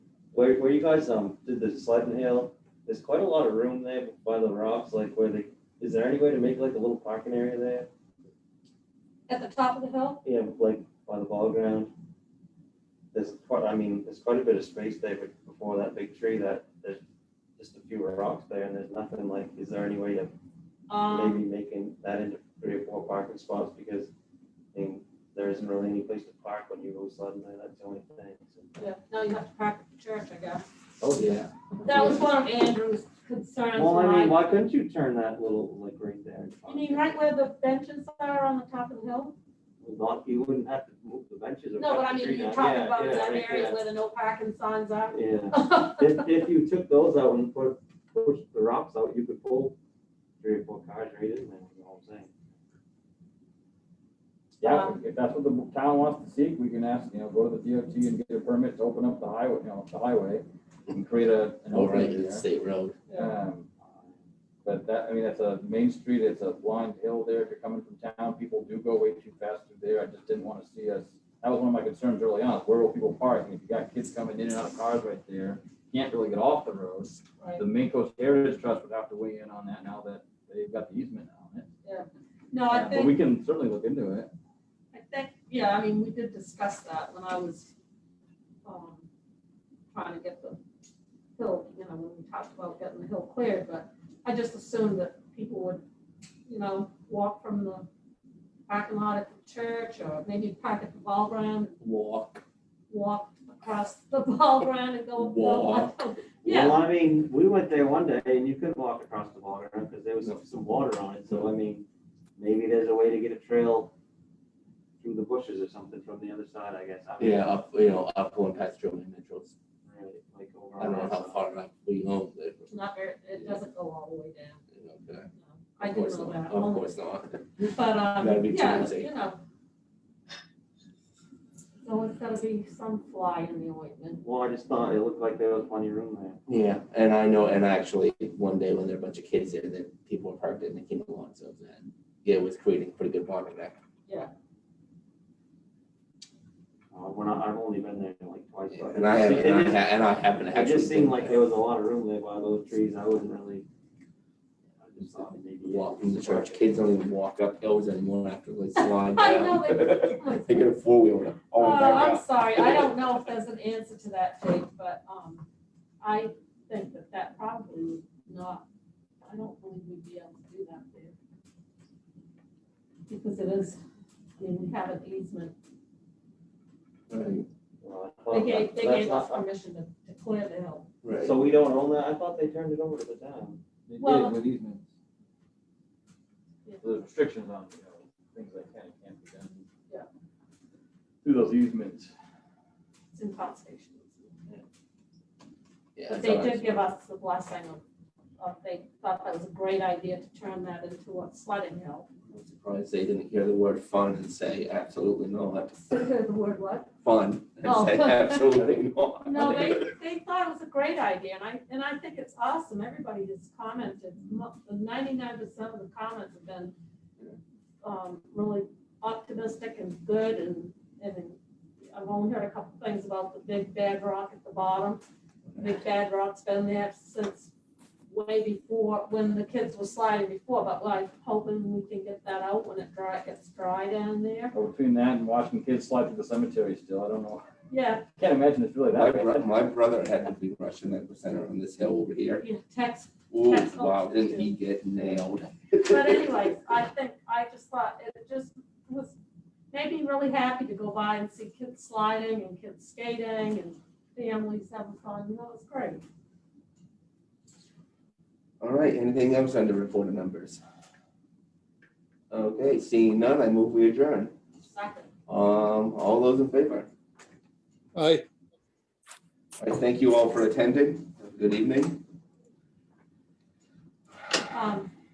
Where, where you guys, um, did the sled and hill, there's quite a lot of room there by the rocks, like where they, is there any way to make like a little parking area there? At the top of the hill? Yeah, like by the ball ground? There's quite, I mean, there's quite a bit of space there be- before that big tree that, there's just a few rocks there and there's nothing like, is there any way of maybe Um, making that into three or four parking spots? Because, I mean, there isn't really any place to park when you go sledding there, that's the only thing. so- yeah, no, you have to park at the church, I guess. Oh, yeah. That was one of Andrew's concerns, Well, I mean, Mike. why couldn't you turn that little, like, right there? and You mean right where the benches are on the top of the hill? Well, Not, you wouldn't have to move the benches. or No, cut but I the mean, tree you're down. talking Yeah, about yeah, that right area where the no parking signs are. there. Yeah, if, if you took those out and put, push the rocks out, you could pull three or four cars right in there, you know what I'm saying? Yeah, Um, if that's what the town wants to seek, we can ask, you know, go to the DOT and get a permit to open up the highway, you know, the highway and create a, an Over overlay the there. state road. Um, But that, I mean, that's a main street, it's a blind hill there, if you're coming from town, people do go way too fast through there, I just didn't wanna see us. That was one of my concerns early on, is where will people park, and if you got kids coming in and out of cars right there, can't really get off the road. Right. The Main Coast Heritage Trust would have to weigh in on that now that they've got the easement on it. No, I Uh, But we think, can certainly look into it. I think, yeah, I mean, we did discuss that when I was, um, trying to get the hill, you know, when we talked about getting the hill cleared, but I just assumed that people would, you know, walk from the parking lot at the church or maybe park at the ball ground, Walk. walk across the ball ground and go. Walk. Yeah. Well, I mean, we went there one day and you couldn't walk across the water because there was some- some water on it, so I mean, maybe there's a way to get a trail through the bushes or something from the other side, I guess. I mean, Yeah, up, you know, up going past German Nichols. right, Like over. I don't know on how that side. far up we own, but, It's not very, it doesn't go all the way down. you know, but no. I of do course know not. that. Oh. Of only- course not. But, Gotta um, be yeah, towards eight. you know. So it's gotta be some fly in the ointment. Well, I just thought it looked like there was plenty of room there. Yeah, and I know, and actually, one day when there were a bunch of kids there, then people were parked in the King Alonso, and yeah, it was creating pretty good bonding there. Uh, When I, I've only been there like twice. so And I have, it and I just- ha- and I happen to It actually. just seemed like they there was a lot of room there by those trees, I wasn't really. I just thought maybe. Walk from the church, kids don't even walk up hills anymore after they slide I know, down. They get a four wheeler, Oh, all back I'm up. sorry, I don't know if there's an answer to that, Jake, but, um, I think that that probably would not, I don't believe we'd be able to do that there. Because it is, I mean, we have an easement, Right, Well, I they thought gave, that- they that's gave us not- permission to to clear the hill. right. So we don't own that, I thought they turned it over to the town. They Well- did with easements. Yeah. The restrictions on, you know, things that can and can't be done. Yeah. Through those easements. It's in conservation. Yeah, But that's they all right. did give us the blessing of, of they thought that was a great idea to turn that into a sledding hill. I'm surprised they didn't hear the word fun and say absolutely not, The word what? fun, and Oh. say absolutely not. No, they, they thought it was a great idea, and I, and I think it's awesome, everybody has commented, ninety-nine percent of the comments have been um, really optimistic and good, and, and I've only heard a couple things about the big bad rock at the bottom. Big Bad Rock's been there since way before, when the kids were sliding before, but like hoping we can get that out when it dry, gets dry down there. But between that and watching kids slide through the cemetery still, I don't know, Yeah, can't imagine it's really My that bad. bro- my brother had to be Russian that was center on this hill over here. you text, Ooh, That's wow, awesome. didn't he get nailed? but anyways, I think, I just thought it just was, made me really happy to go by and see kids sliding and kids skating and families having fun, you know, it was great. All right, anything else under reported numbers? Okay, seeing none, I move we adjourn. Second. Um, all those in favor? Aye, I thank you all for attending. Have a Good evening. Um,